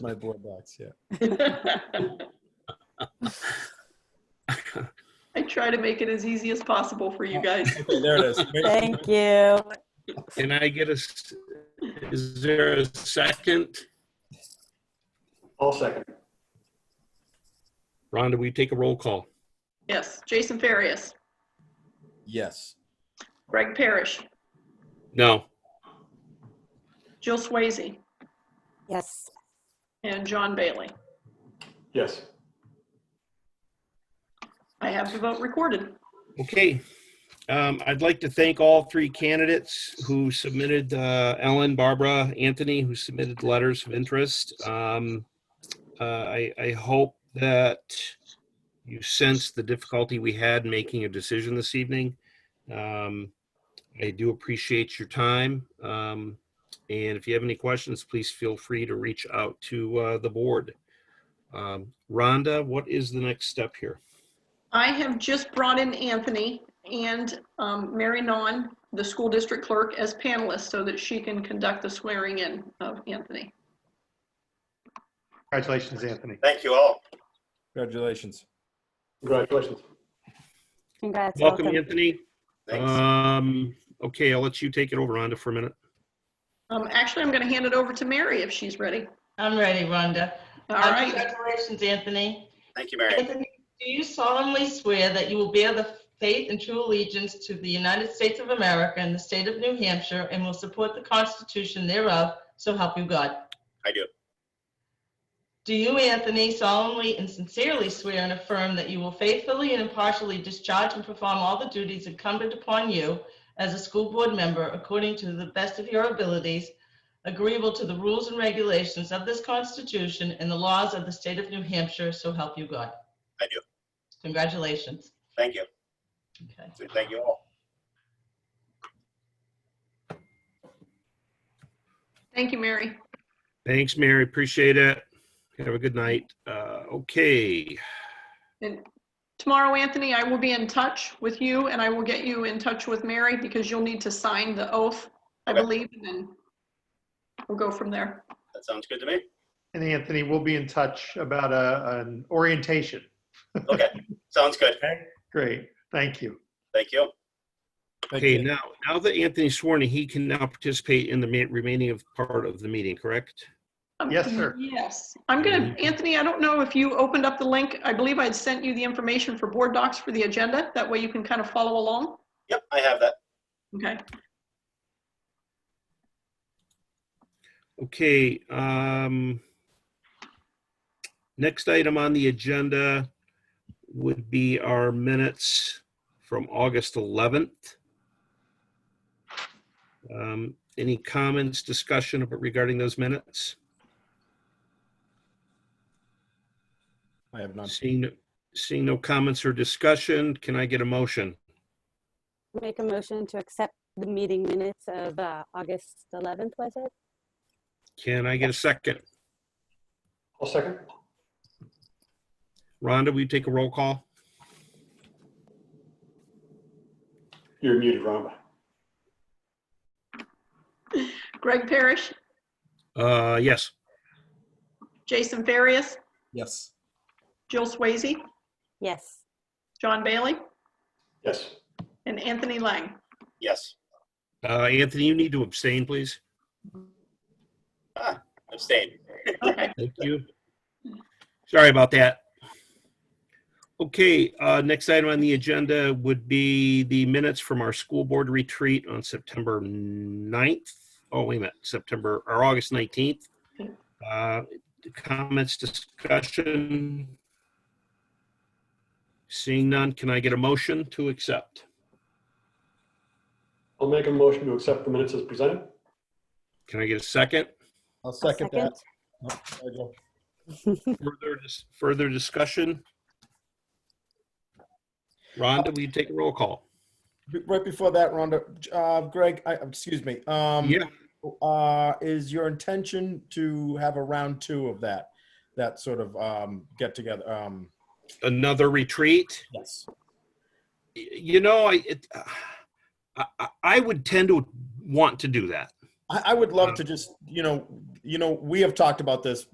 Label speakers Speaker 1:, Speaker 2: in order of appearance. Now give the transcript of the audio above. Speaker 1: my board box, yeah.
Speaker 2: I try to make it as easy as possible for you guys.
Speaker 1: Okay, there it is.
Speaker 3: Thank you.
Speaker 4: Can I get a, s- is there a second?
Speaker 5: I'll second.
Speaker 4: Rhonda, will you take a roll call?
Speaker 2: Yes, Jason Farias,
Speaker 1: Yes.
Speaker 2: Greg Parrish,
Speaker 4: No.
Speaker 2: Jill Swayze,
Speaker 3: Yes.
Speaker 2: and John Bailey.
Speaker 5: Yes.
Speaker 2: I have the vote recorded.
Speaker 4: Okay. Um, I'd like to thank all three candidates who submitted, uh, Ellen, Barbara, Anthony, who submitted letters of interest. Um, uh, I, I hope that you sense the difficulty we had making a decision this evening. Um, I do appreciate your time. Um, and if you have any questions, please feel free to reach out to, uh, the board. Um, Rhonda, what is the next step here?
Speaker 2: I have just brought in Anthony and um, Mary Non, the school district clerk, as panelists so that she can conduct the swearing in of Anthony.
Speaker 6: Congratulations, Anthony.
Speaker 7: Thank you all.
Speaker 1: Congratulations.
Speaker 5: Congratulations.
Speaker 3: Congrats.
Speaker 4: Welcome, Anthony.
Speaker 6: Uh,
Speaker 7: Thanks.
Speaker 4: Um, okay, I'll let you take it over, Rhonda, for a minute.
Speaker 2: Um, Actually, I'm going to hand it over to Mary if she's ready.
Speaker 8: I'm ready, Rhonda.
Speaker 2: All
Speaker 8: Uh,
Speaker 2: right.
Speaker 8: Congratulations, Anthony.
Speaker 7: Thank you, Mary.
Speaker 8: Anthony, do you solemnly swear that you will bear the faith and true allegiance to the United States of America and the state of New Hampshire and will support the Constitution thereof, so help you God?
Speaker 7: I do.
Speaker 8: Do you, Anthony, solemnly and sincerely swear and affirm that you will faithfully and impartially discharge and perform all the duties incumbent upon you as a school board member according to the best of your abilities, agreeable to the rules and regulations of this Constitution and the laws of the state of New Hampshire, so help you God?
Speaker 7: I do.
Speaker 8: Congratulations.
Speaker 7: Thank you.
Speaker 8: Okay.
Speaker 7: Thank you all.
Speaker 2: Thank you, Mary.
Speaker 4: Thanks, Mary. Appreciate it. Have a good night. Uh, okay,
Speaker 2: And tomorrow, Anthony, I will be in touch with you and I will get you in touch with Mary because you'll need to sign the oath, I
Speaker 7: Okay.
Speaker 2: believe, and then we'll go from there.
Speaker 7: That sounds good to me.
Speaker 6: And Anthony, we'll be in touch about a, an orientation.
Speaker 7: Okay, sounds good.
Speaker 6: Great. Thank you.
Speaker 7: Thank you.
Speaker 1: Thank
Speaker 4: okay,
Speaker 1: you.
Speaker 4: now, now that Anthony's sworn, in, he can now participate in the ma- remaining of part of the meeting, correct?
Speaker 2: Um,
Speaker 6: Yes, sir.
Speaker 2: Yes. I'm gonna, Anthony, I don't know if you opened up the link. I believe I'd sent you the information for board docs for the agenda. That way you can kind of follow along.
Speaker 7: Yep, I have that.
Speaker 2: Okay.
Speaker 4: Okay, um, next item on the agenda would be our minutes from August 11th. Um, Any comments, discussion regarding those minutes?
Speaker 1: I have none.
Speaker 4: Um, Seeing, seeing no comments or discussion, can I get a motion?
Speaker 3: Make a motion to accept the meeting minutes of uh, August 11th, was it?
Speaker 4: Can I get a second?
Speaker 5: I'll second.
Speaker 4: Rhonda, will you take a roll call?
Speaker 5: You're muted, Rhonda.
Speaker 2: Greg Parrish,
Speaker 4: Uh, yes.
Speaker 2: Jason Farias,
Speaker 1: Yes.
Speaker 2: Jill Swayze,
Speaker 3: Yes.
Speaker 2: John Bailey,
Speaker 5: Yes.
Speaker 2: and Anthony Lang.
Speaker 7: Yes,
Speaker 4: Uh, Anthony, you need to abstain, please.
Speaker 7: abstain.
Speaker 2: Okay.
Speaker 4: Thank you. Sorry about that. Okay, uh, next item on the agenda would be the minutes from our school board retreat on September 9th. Oh, wait a minute, September, or August 19th. Uh, Comments, discussion? Seeing none, can I get a motion to accept?
Speaker 5: I'll make a motion to accept the minutes as presented.
Speaker 4: Can I get a second?
Speaker 1: I'll
Speaker 3: I'll
Speaker 1: second that. Oh, there you go.
Speaker 4: Further, dis- further discussion? Rhonda, will you take a roll call?
Speaker 1: Be- Right before that, Rhonda, uh, Greg, I, excuse me. Um,
Speaker 4: Yeah.
Speaker 1: uh, is your intention to have a round two of that, that sort of um, get together? Um,
Speaker 4: Another retreat?
Speaker 1: yes.
Speaker 4: Y- you know, I, it, uh, I- I, I would tend to want to do that.
Speaker 1: I, I would love to just, you know, you know, we have talked about this